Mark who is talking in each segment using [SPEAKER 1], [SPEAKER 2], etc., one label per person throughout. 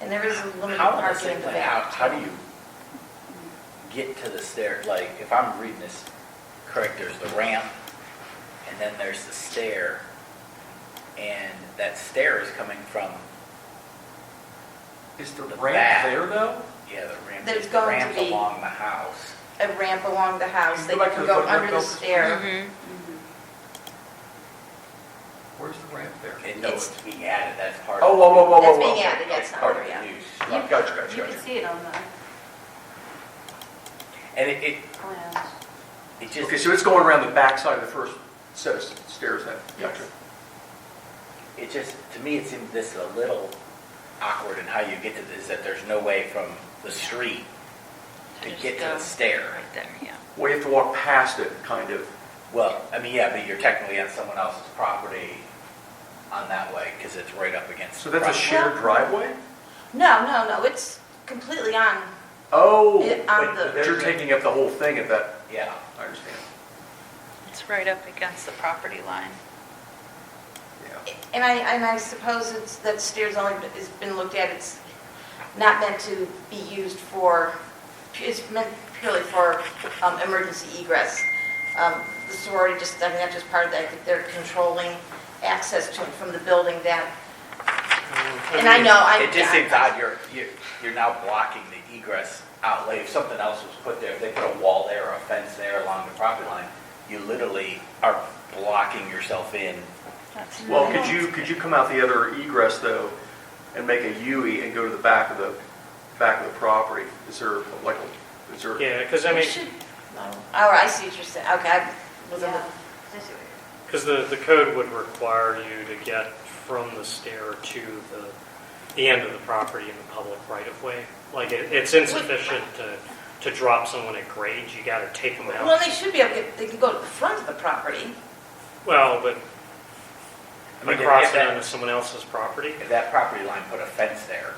[SPEAKER 1] And there is limited
[SPEAKER 2] How, am I
[SPEAKER 1] parking
[SPEAKER 2] saying,
[SPEAKER 1] in the
[SPEAKER 2] like, how,
[SPEAKER 1] back.
[SPEAKER 2] how do you get to the stair, like, if I'm reading this correct, there's the ramp, and then there's the stair, and that stair is coming from,
[SPEAKER 3] Is the
[SPEAKER 2] The
[SPEAKER 3] ramp
[SPEAKER 2] back.
[SPEAKER 3] there though?
[SPEAKER 2] yeah, the ramp,
[SPEAKER 1] There's
[SPEAKER 2] the
[SPEAKER 1] going to
[SPEAKER 2] ramp
[SPEAKER 1] be-
[SPEAKER 2] along the house.
[SPEAKER 1] A ramp along the house
[SPEAKER 3] You
[SPEAKER 1] that
[SPEAKER 3] go
[SPEAKER 1] you can
[SPEAKER 3] back to the
[SPEAKER 1] go
[SPEAKER 3] photograph
[SPEAKER 1] under the
[SPEAKER 3] books.
[SPEAKER 1] stair.
[SPEAKER 4] Mm-hmm.
[SPEAKER 3] Where's the ramp there?
[SPEAKER 2] And no,
[SPEAKER 1] It's-
[SPEAKER 2] it's being added, that's part of.
[SPEAKER 3] Oh, whoa, whoa, whoa, whoa,
[SPEAKER 1] That's
[SPEAKER 3] whoa.
[SPEAKER 1] being added, yeah, it's not
[SPEAKER 2] Part
[SPEAKER 1] there
[SPEAKER 2] of the
[SPEAKER 1] yet.
[SPEAKER 2] use.
[SPEAKER 3] Gotcha, gotcha,
[SPEAKER 5] You can
[SPEAKER 3] gotcha.
[SPEAKER 5] see it on the
[SPEAKER 2] And it, it,
[SPEAKER 5] plans.
[SPEAKER 2] it just.
[SPEAKER 3] Okay, so it's going around the backside of the first set of stairs then? Gotcha.
[SPEAKER 2] It just, to me, it seems this a little awkward in how you get to this, that there's no way from the street to
[SPEAKER 4] Just
[SPEAKER 2] get to the
[SPEAKER 4] go
[SPEAKER 2] stair.
[SPEAKER 4] Right there, yeah.
[SPEAKER 3] Well, you have to walk past it, kind of.
[SPEAKER 2] Well, I mean, yeah, but you're technically on someone else's property on that way, because it's right up against.
[SPEAKER 3] So
[SPEAKER 2] the
[SPEAKER 3] that's a
[SPEAKER 2] front.
[SPEAKER 3] shared driveway?
[SPEAKER 1] No, no, no, it's completely on,
[SPEAKER 3] Oh,
[SPEAKER 1] It- on
[SPEAKER 3] but
[SPEAKER 1] the-
[SPEAKER 3] you're taking up the whole thing at that,
[SPEAKER 2] Yeah,
[SPEAKER 3] I understand.
[SPEAKER 4] It's right up against the property line.
[SPEAKER 3] Yeah.
[SPEAKER 1] and I, and I suppose it's, that stairs only has been looked at, it's not meant to be used for, it's meant purely for um, emergency egress. Um, The sorority just, I mean, that's just part of that, I think they're controlling access to, from the building that,
[SPEAKER 3] Mm-hmm.
[SPEAKER 1] and I know, I.
[SPEAKER 2] it just seems odd, you're, you're, you're now blocking the egress out, like, if something else was put there, if they put a wall there or a fence there along the property line, you literally are blocking yourself in
[SPEAKER 4] That's-
[SPEAKER 3] Well, could you, could you come out the other egress though and make a U-E and go to the back of the, back of the property? Is there like, a- is there?
[SPEAKER 6] Yeah, because I mean,
[SPEAKER 1] Oh, I see what you're saying, okay, I was in the
[SPEAKER 5] Yeah. This way.
[SPEAKER 6] because the, the code would require you to get from the stair to the, the end of the property in the public right of way. Like, it, it's insufficient to, to drop someone at grade, you gotta take them
[SPEAKER 1] Well,
[SPEAKER 6] out.
[SPEAKER 1] they should be able to, they can go to the front of the property.
[SPEAKER 6] Well, but,
[SPEAKER 2] I
[SPEAKER 6] by
[SPEAKER 2] mean, if- if
[SPEAKER 6] crossing
[SPEAKER 2] that-
[SPEAKER 6] onto someone else's property,
[SPEAKER 2] If that property line put a fence there,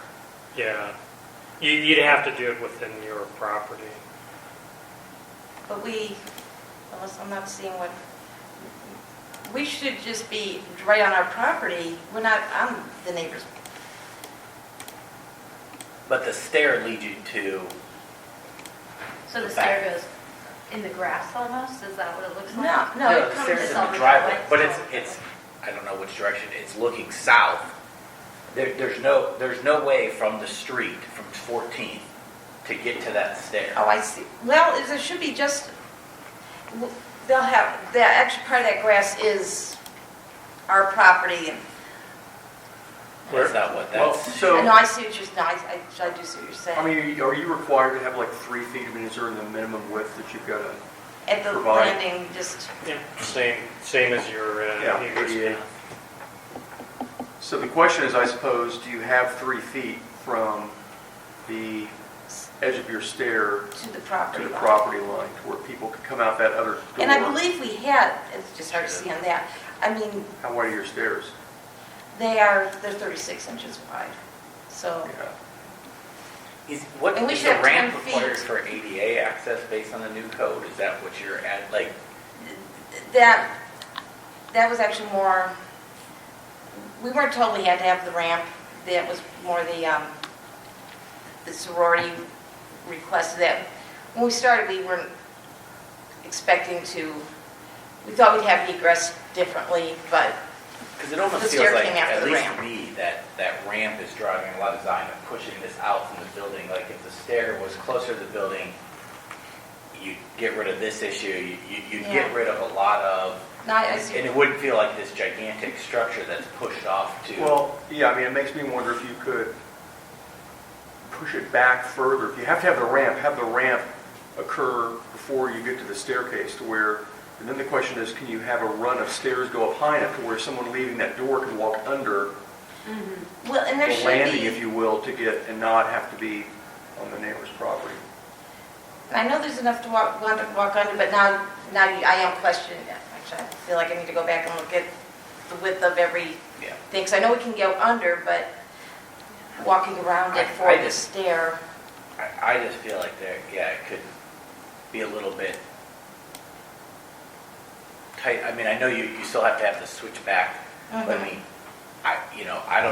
[SPEAKER 6] yeah. You, you'd have to do it within your property.
[SPEAKER 1] But we, unless I'm not seeing what, we should just be right on our property, we're not on the neighbor's.
[SPEAKER 2] but the stair leads you to,
[SPEAKER 5] So the
[SPEAKER 2] The back.
[SPEAKER 5] stair goes in the grass almost, is that what it looks like?
[SPEAKER 1] No, no,
[SPEAKER 2] no,
[SPEAKER 1] it
[SPEAKER 2] the
[SPEAKER 1] comes,
[SPEAKER 2] stair's in
[SPEAKER 5] all
[SPEAKER 2] the
[SPEAKER 5] the
[SPEAKER 2] driveway,
[SPEAKER 5] driveway.
[SPEAKER 2] but it's, it's, I don't know which direction, it's looking south. There, there's no, there's no way from the street, from 14th, to get to that stair.
[SPEAKER 1] oh, I see. Well, is- there should be just, they'll have, the extra part of that grass is our property. and-
[SPEAKER 2] That's not what
[SPEAKER 3] Well,
[SPEAKER 2] that's,
[SPEAKER 1] I know,
[SPEAKER 3] so,
[SPEAKER 1] I see what you're, no, I, I I do see what you're
[SPEAKER 3] I
[SPEAKER 1] saying.
[SPEAKER 3] mean, are you required to have like three feet, I mean, is there the minimum width that you've got to?
[SPEAKER 1] At the
[SPEAKER 3] provide-
[SPEAKER 1] landing, just,
[SPEAKER 6] Yeah. Same, same as your,
[SPEAKER 3] Yeah,
[SPEAKER 6] uh, neighbor's
[SPEAKER 3] ADA.
[SPEAKER 6] path.
[SPEAKER 3] So the question is, I suppose, do you have three feet from the edge of your stair
[SPEAKER 1] to the
[SPEAKER 3] to
[SPEAKER 1] property.
[SPEAKER 3] the
[SPEAKER 1] line.
[SPEAKER 3] property line to where people could come out that other door?
[SPEAKER 1] And I believe we had, it's just hard to see on that, I mean,
[SPEAKER 3] How wide are your stairs?
[SPEAKER 1] They are, they're 36 inches wide, so,
[SPEAKER 3] Yeah.
[SPEAKER 2] is, what,
[SPEAKER 1] And we
[SPEAKER 2] is
[SPEAKER 1] should
[SPEAKER 2] the
[SPEAKER 1] have 10
[SPEAKER 2] ramp
[SPEAKER 1] feet.
[SPEAKER 2] required for ADA access based on the new code? Is that what you're at, like,
[SPEAKER 1] that, that was actually more, we weren't told we had to have the ramp, that was more the, um, the sorority requested that. When we started, we weren't expecting to, we thought we'd have egress differently, but
[SPEAKER 2] Because it almost
[SPEAKER 1] The
[SPEAKER 2] feels
[SPEAKER 1] stair
[SPEAKER 2] like,
[SPEAKER 1] came after
[SPEAKER 2] at
[SPEAKER 1] the
[SPEAKER 2] least
[SPEAKER 1] ramp.
[SPEAKER 2] to me, that, that ramp is driving a lot of design and pushing this out from the building. Like if the stair was closer to the building, you'd get rid of this issue, you, you- you'd get
[SPEAKER 1] Yeah.
[SPEAKER 2] rid of a lot of,
[SPEAKER 1] not as,
[SPEAKER 2] and it wouldn't feel like this gigantic structure that's pushed off to.
[SPEAKER 3] Well, yeah, I mean, it makes me wonder if you could push it back further. If you have to have the ramp, have the ramp occur before you get to the staircase to where, and then the question is, can you have a run of stairs go up high enough to where someone leaving that door can walk under
[SPEAKER 1] well, and there
[SPEAKER 3] the
[SPEAKER 1] should
[SPEAKER 3] landing,
[SPEAKER 1] be-
[SPEAKER 3] if you will, to get, and not have to be on the neighbor's property?
[SPEAKER 1] I know there's enough to walk, want to walk under, but now, now you- I am questioning that. Actually, I feel like I need to go back and look at the width of every
[SPEAKER 2] Yeah.
[SPEAKER 1] thing, 'cause I know we can go under, but walking around it
[SPEAKER 2] I-
[SPEAKER 1] for
[SPEAKER 2] I
[SPEAKER 1] the
[SPEAKER 2] just-
[SPEAKER 1] stair,
[SPEAKER 2] I, I just feel like there, yeah, it could be a little bit tight. I mean, I know you, you still have to have the switch back, but I
[SPEAKER 1] Mhm.
[SPEAKER 2] mean, I, you know, I don't